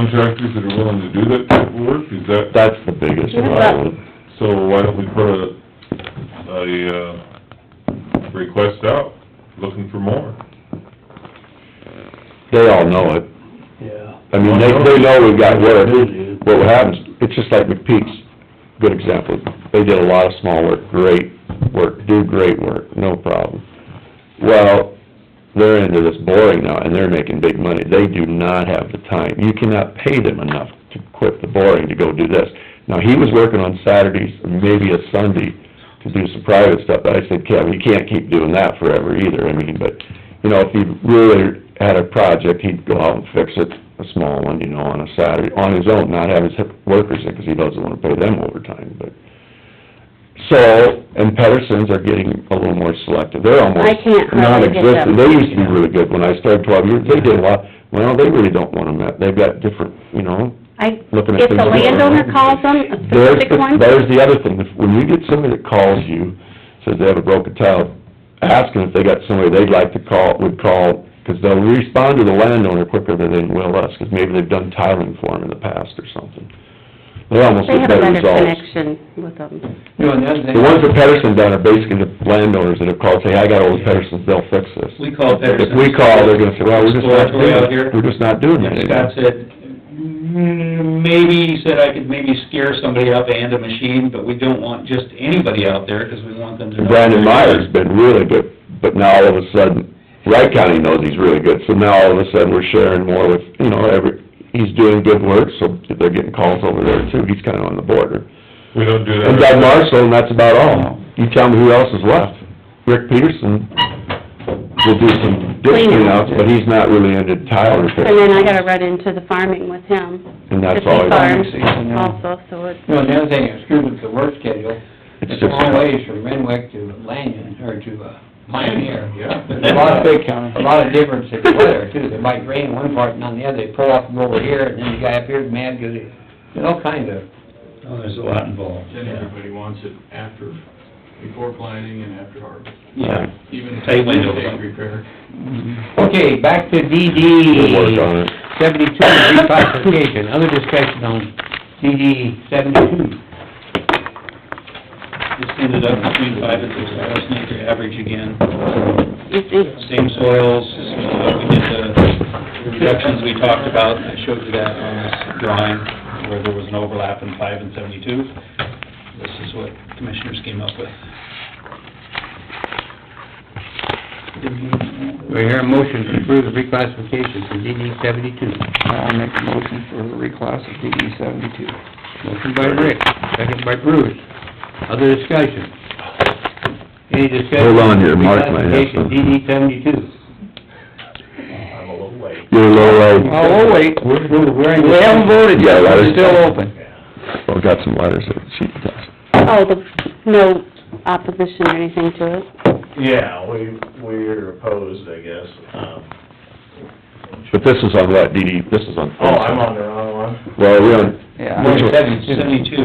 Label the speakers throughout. Speaker 1: contractors that are willing to do that type of work, is that,
Speaker 2: That's the biggest one, I would,
Speaker 1: so why don't we put a, a, uh, request out, looking for more?
Speaker 2: they all know it.
Speaker 3: Yeah.
Speaker 2: I mean, they, they know we've got work, but what happens, it's just like McPeak's, good example. They did a lot of small work, great work, do great work, no problem. Well, they're into this boring now, and they're making big money. They do not have the time. You cannot pay them enough to quit the boring to go do this. Now, he was working on Saturdays, maybe a Sunday, to do some private stuff, but I said, Kevin, you can't keep doing that forever either. I mean, but, you know, if he really had a project, he'd go out and fix it, a small one, you know, on a Saturday, on his own, not have his workers in, because he doesn't want to pay them overtime, but... So, and Pedersons are getting a little more selective, they're almost
Speaker 4: I can't hardly get
Speaker 2: non-existent.
Speaker 4: them.
Speaker 2: They used to be really good when I started twelve years, they did a lot, well, they really don't want them, they've got different, you know,
Speaker 4: I,
Speaker 2: looking at
Speaker 4: if
Speaker 2: things that
Speaker 4: the
Speaker 2: are-
Speaker 4: landowner calls them, a
Speaker 2: There's,
Speaker 4: specific
Speaker 2: the-
Speaker 4: one,
Speaker 2: there's the other thing, If- when you get somebody that calls you, says they have a broken tile, ask them if they got somebody they'd like to call, would call, because they'll respond to the landowner quicker than they will us, because maybe they've done tiling for them in the past or something. They almost
Speaker 4: they
Speaker 2: get
Speaker 4: have a
Speaker 2: better
Speaker 4: better
Speaker 2: results.
Speaker 4: connection with them.
Speaker 3: You know, and the other thing.
Speaker 2: The ones that Pedersen done are basically the landowners that have called, say, I got old Pedersons, they'll fix this.
Speaker 3: We call
Speaker 2: If we call, they're gonna say, well, we're just not
Speaker 3: Exploratory
Speaker 2: doing
Speaker 3: out here.
Speaker 2: it, we're just not doing that
Speaker 3: And Scott
Speaker 2: anymore.
Speaker 3: said, "Mm, maybe, he said I could maybe scare somebody up and a machine, but we don't want just anybody out there, 'cause we want them to know.
Speaker 2: Brandon Meyer's been really good, but now all of a sudden, Wright County knows he's really good, so now all of a sudden, we're sharing more with, you know, every, he's doing good work, so they're getting calls over there too, he's kinda on the border.
Speaker 1: We don't do that.
Speaker 2: And Doug Marshall, and that's about all, you tell me who else is left, Rick Peterson will do some ditch
Speaker 4: Cleanup.
Speaker 2: cleanouts, but he's not really into tile repair.
Speaker 4: And then I gotta run into the farming with him.
Speaker 2: And that's
Speaker 4: If he
Speaker 2: all I-
Speaker 4: farms
Speaker 3: Farming season, yeah.
Speaker 4: Also, so it's,
Speaker 5: No, and the other thing is, screwed with the work schedule,
Speaker 2: It's
Speaker 5: it's a
Speaker 2: just-
Speaker 5: long ways from Renwick to Lanyon, or to uh, Pioneer.
Speaker 1: Yeah.
Speaker 5: There's a lot of, a lot of difference in weather too, it might rain one part and on the other, they pull off and go over here, and then the guy up here's mad because he, there's all kinds of,
Speaker 3: Oh, there's a lot involved.
Speaker 6: Then everybody wants it after, before planting and after harvest,
Speaker 2: Yeah.
Speaker 6: even if
Speaker 3: Tight
Speaker 6: it's
Speaker 3: window.
Speaker 6: intake repair.
Speaker 5: okay, back to
Speaker 2: Good work
Speaker 5: DD
Speaker 2: on it.
Speaker 5: seventy-two, reclassification, other discussion on DD seventy-two.
Speaker 3: Just ended up between five and six thousand acre average again.
Speaker 4: you see,
Speaker 3: Same soils, uh, we did uh, the reductions we talked about, I showed you that on this drawing, where there was an overlap in five and seventy-two. This is what commissioners came up with.
Speaker 5: Do I hear a motion to approve the reclassification for DD seventy-two?
Speaker 7: I'll make a motion for the reclass of DD seventy-two.
Speaker 5: Motion by Rick, second by Bruce. Other discussion? Any discussion?
Speaker 2: Hold on here, Mark might have
Speaker 5: Reclassification
Speaker 2: something.
Speaker 5: DD seventy-two.
Speaker 6: I'm a little late.
Speaker 2: You're uh, low, low.
Speaker 7: Oh, we'll wait,
Speaker 5: We're, we're, we're in
Speaker 7: we haven't
Speaker 5: discussion.
Speaker 7: voted yet,
Speaker 2: Yeah, that is-
Speaker 7: it's still open.
Speaker 2: Well, got some letters that she does.
Speaker 4: oh, the, no opposition or anything to it.
Speaker 8: Yeah, we, we're opposed, I guess. Um,
Speaker 2: But this is on what, DD, this is on...
Speaker 8: Oh, I'm on the wrong one.
Speaker 2: Well, we on...
Speaker 7: Yeah.
Speaker 2: Which one?
Speaker 3: Seventy-two.
Speaker 8: Oh,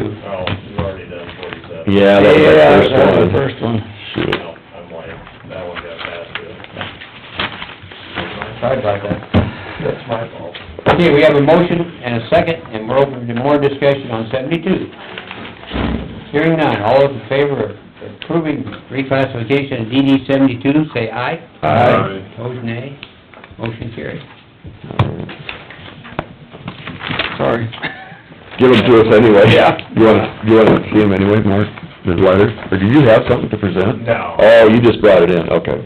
Speaker 8: you've already done forty-seven.
Speaker 2: Yeah, that was
Speaker 7: Yeah,
Speaker 2: our first
Speaker 7: that was the
Speaker 2: one.
Speaker 7: first one.
Speaker 2: Shoot.
Speaker 8: No, I'm like, that one got passed, yeah.
Speaker 5: Sorry about that.
Speaker 8: That's my fault.
Speaker 5: Okay, we have a motion and a second, and we're open to more discussion on seventy-two. Hearing none, all those in favor of approving reclassification of DD seventy-two, say aye.
Speaker 2: Aye.
Speaker 5: Opposed, nay. Motion carried.
Speaker 7: Sorry.
Speaker 2: Give them to us anyway.
Speaker 5: Yeah.
Speaker 2: You wanna, you wanna see them anyway, Mark, the letters? Or do you have something to present?
Speaker 8: No.
Speaker 2: Oh, you just brought it in, okay.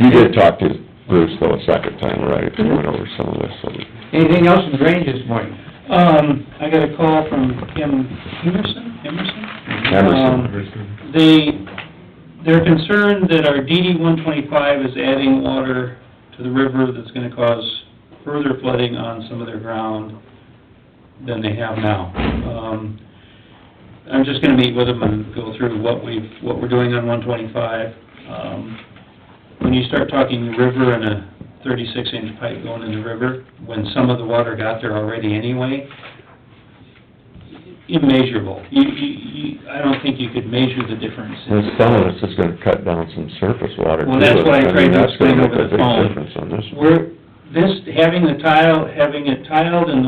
Speaker 2: You did talk to Bruce though a second time, right, if you went over some of this, so...
Speaker 5: Anything else in drainage this morning?
Speaker 3: Um, I got a call from Kim Emerson, Emerson?
Speaker 2: Emerson.
Speaker 3: Um, They, they're concerned that our DD one twenty-five is adding water to the river that's gonna cause further flooding on some of their ground than they have now. Um, I'm just gonna meet with them and go through what we've, what we're doing on one twenty-five. Um, when you start talking river and a thirty-six inch pipe going in the river, when some of the water got there already anyway, immeasurable. You, you, you, I don't think you could measure the difference. in-
Speaker 2: And some of this is gonna cut down some surface water too.
Speaker 3: Well, that's what I
Speaker 2: mean,
Speaker 3: tried to
Speaker 2: that's gonna
Speaker 3: explain
Speaker 2: make
Speaker 3: over
Speaker 2: a
Speaker 3: the
Speaker 2: big
Speaker 3: phone.
Speaker 2: difference on this.
Speaker 3: We're, this, having the tile, having it tiled and